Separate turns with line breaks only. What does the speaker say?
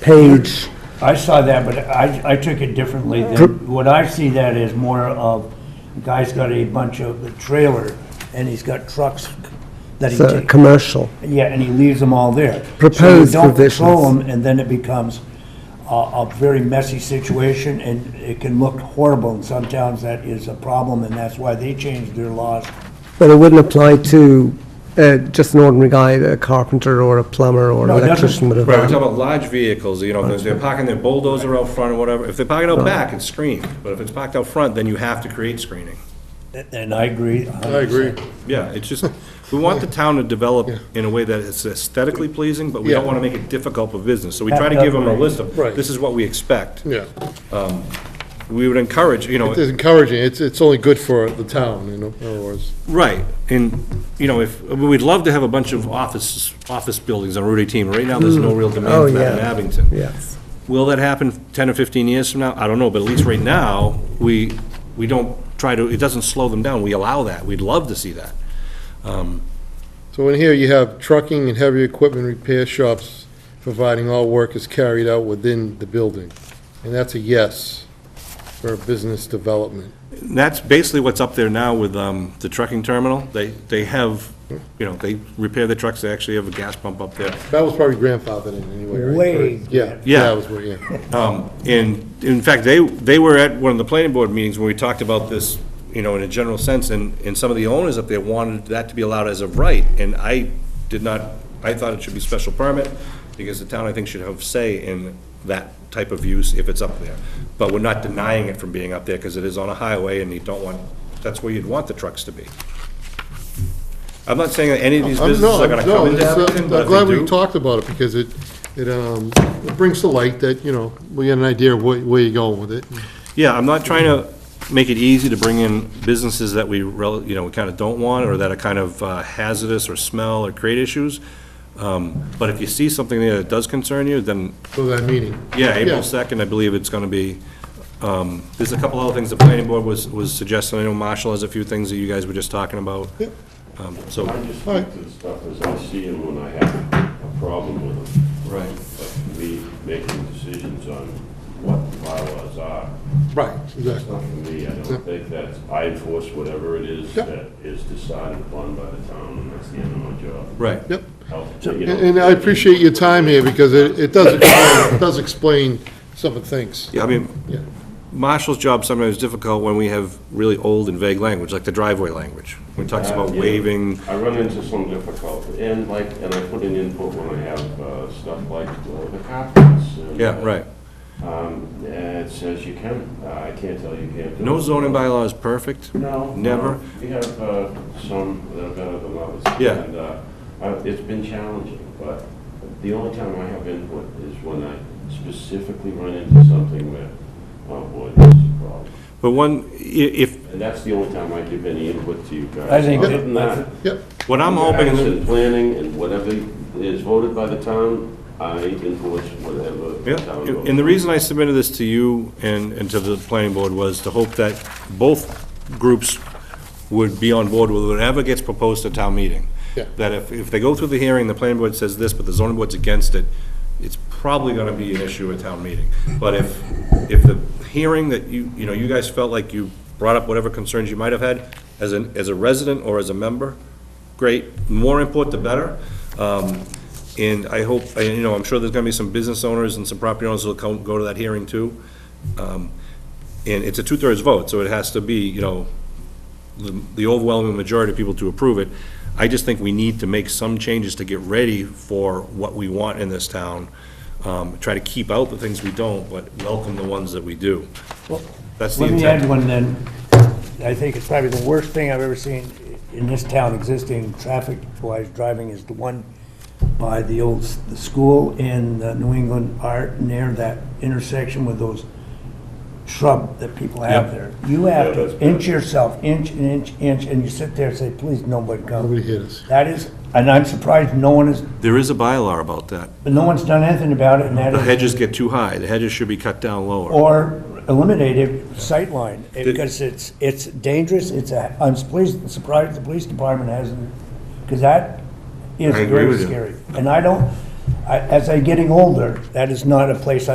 page,
I saw that, but I, I took it differently than, what I see that is more of, guy's got a bunch of the trailer, and he's got trucks that he
it's a
takes,
uh, commercial.
yeah, and he leaves them all there.
Proposed
So you don't control
provisions.
them, and then it becomes a, a very messy situation, and it can look horrible, and sometimes that is a problem, and that's why they changed their laws.
But it wouldn't apply to uh, just an ordinary guy, a carpenter or a plumber or
No, it
an
doesn't.
electrician with a
Right, we're talking
van.
about large vehicles, you know, if they're parking their bulldozer out front or whatever, if they park it out back, it's screened, but if it's parked out front, then you have to create screening.
And I agree.
I agree.
Yeah, it's just, we want the town to develop in a way that is aesthetically pleasing, but we don't
Yeah.
wanna make it difficult for business, so we try to give them a list of,
Right.
this is what we expect.
Yeah,
We would encourage, you know,
it's encouraging, it's, it's only good for the town, you know, in other words.
right, and, you know, if, we'd love to have a bunch of offices, office buildings on Route eighteen, right now, there's no real
Oh,
demand for that in
yeah.
Abington.
Yes.
Will that happen 10 or 15 years from now? I don't know, but at least right now, we, we don't try to, it doesn't slow them down. We allow that. We'd love to see that.
So in here, you have trucking and heavy equipment repair shops, providing all work is carried out within the building. And that's a yes for business development.
And that's basically what's up there now with um, the trucking terminal. They, they have, you know, they repair the trucks, they actually have a gas pump up there.
That was probably grandfathered in anyway, right?
Way.
Yeah,
Yeah.
yeah, that was where, yeah.
And in fact, they, they were at one of the planning board meetings where we talked about this, you know, in a general sense, and, and some of the owners up there wanted that to be allowed as of right, and I did not, I thought it should be special permit, because the town, I think, should have say in that type of use if it's up there. But we're not denying it from being up there, because it is on a highway, and you don't want, that's where you'd want the trucks to be. I'm not saying that any of these
I'm-
businesses
no,
are gonna
I'm- no,
come into
it's, uh,
Abington, but
I'm
if
glad
they
we
do,
talked about it, because it, it, um, it brings to light that, you know, we get an idea of where, where you're going with it.
Yeah, I'm not trying to make it easy to bring in businesses that we, rel- you know, we kind of don't want, or that are kind of uh, hazardous, or smell, or create issues. Um, But if you see something there that does concern you, then,
So that meeting.
yeah, April 2nd, I believe it's going to be, um, there's a couple other things the planning board was, was suggesting. I know Marshall has a few things that you guys were just talking about.
Yep.
Um, So,
I just think to the stuff as I see them when I have a problem with them.
Right.
But me making decisions on what the bylaws are,
Right,
that's
exactly.
not for me. I
Yeah.
don't think that's, I enforce whatever it is
Yeah.
that is decided upon by the town, and that's the end of my job.
right.
Yep.
I'll take it
And and I appreciate your time here, because it, it does, explain- it does explain some of the things.
Yeah, I mean,
Yeah.
Marshall's job sometimes is difficult when we have really old and vague language, like the driveway language. When it talks about
Uh, Yeah.
waiving,
I run into some difficulty, and like, and I put in input when I have uh, stuff like uh, the carpets. and,
yeah, right.
um, and It says you can, uh, I can't tell you can't do it.
No zoning bylaw is perfect.
No.
Never?
no. We have uh, some that are better than others.
Yeah.
And uh, I- it's been challenging, but the only time I have input is when I specifically run into something where, oh boy, this is a problem.
But one, i- if,
And that's the only time I give any input to you guys.
I think
Other
that-
than that,
Yep,
what I'm hoping,
Action, planning, and whatever is voted by the town, I influence whatever. the
yeah,
town votes.
and the reason I submitted this to you and, and to the planning board was to hope that both groups would be on board with whatever gets proposed at town meeting.
Yeah.
That if, if they go through the hearing, the planning board says this, but the zoning board's against it, it's probably gonna be an issue at town meeting. But if, if the hearing that you, you know, you guys felt like you brought up whatever concerns you might have had as an, as a resident or as a member, great, more input the better. Um, And I hope, I- you know, I'm sure there's gonna be some business owners and some property owners who'll come, go to that hearing too. Um, And it's a two-thirds vote, so it has to be, you know, the the overwhelming majority of people to approve it. I just think we need to make some changes to get ready for what we want in this town. Um, Try to keep out the things we don't, but welcome the ones that we do. That's the
Let me add
intent.
one then. I think it's probably the worst thing I've ever seen in this town existing traffic-wise driving is the one by the old, s- the school in the New England Art near that intersection with those shrub that people have
Yep.
there. You have
Yeah, that's
to
bad.
inch yourself, inch, and inch, inch, and you sit there and say, please, nobody
nobody
come.
hit us.
That is, and I'm surprised no one is,
There is a bylaw about that.
no one's done anything about it and that
The
is.
hedges get too high. The hedges should be cut down lower.
or eliminated sightline, because it's, it's dangerous, it's a, I'm pleased, surprised the police department hasn't, because that is
I agree
very
with you.
scary. And I don't, I- as I'm getting older, that is not a place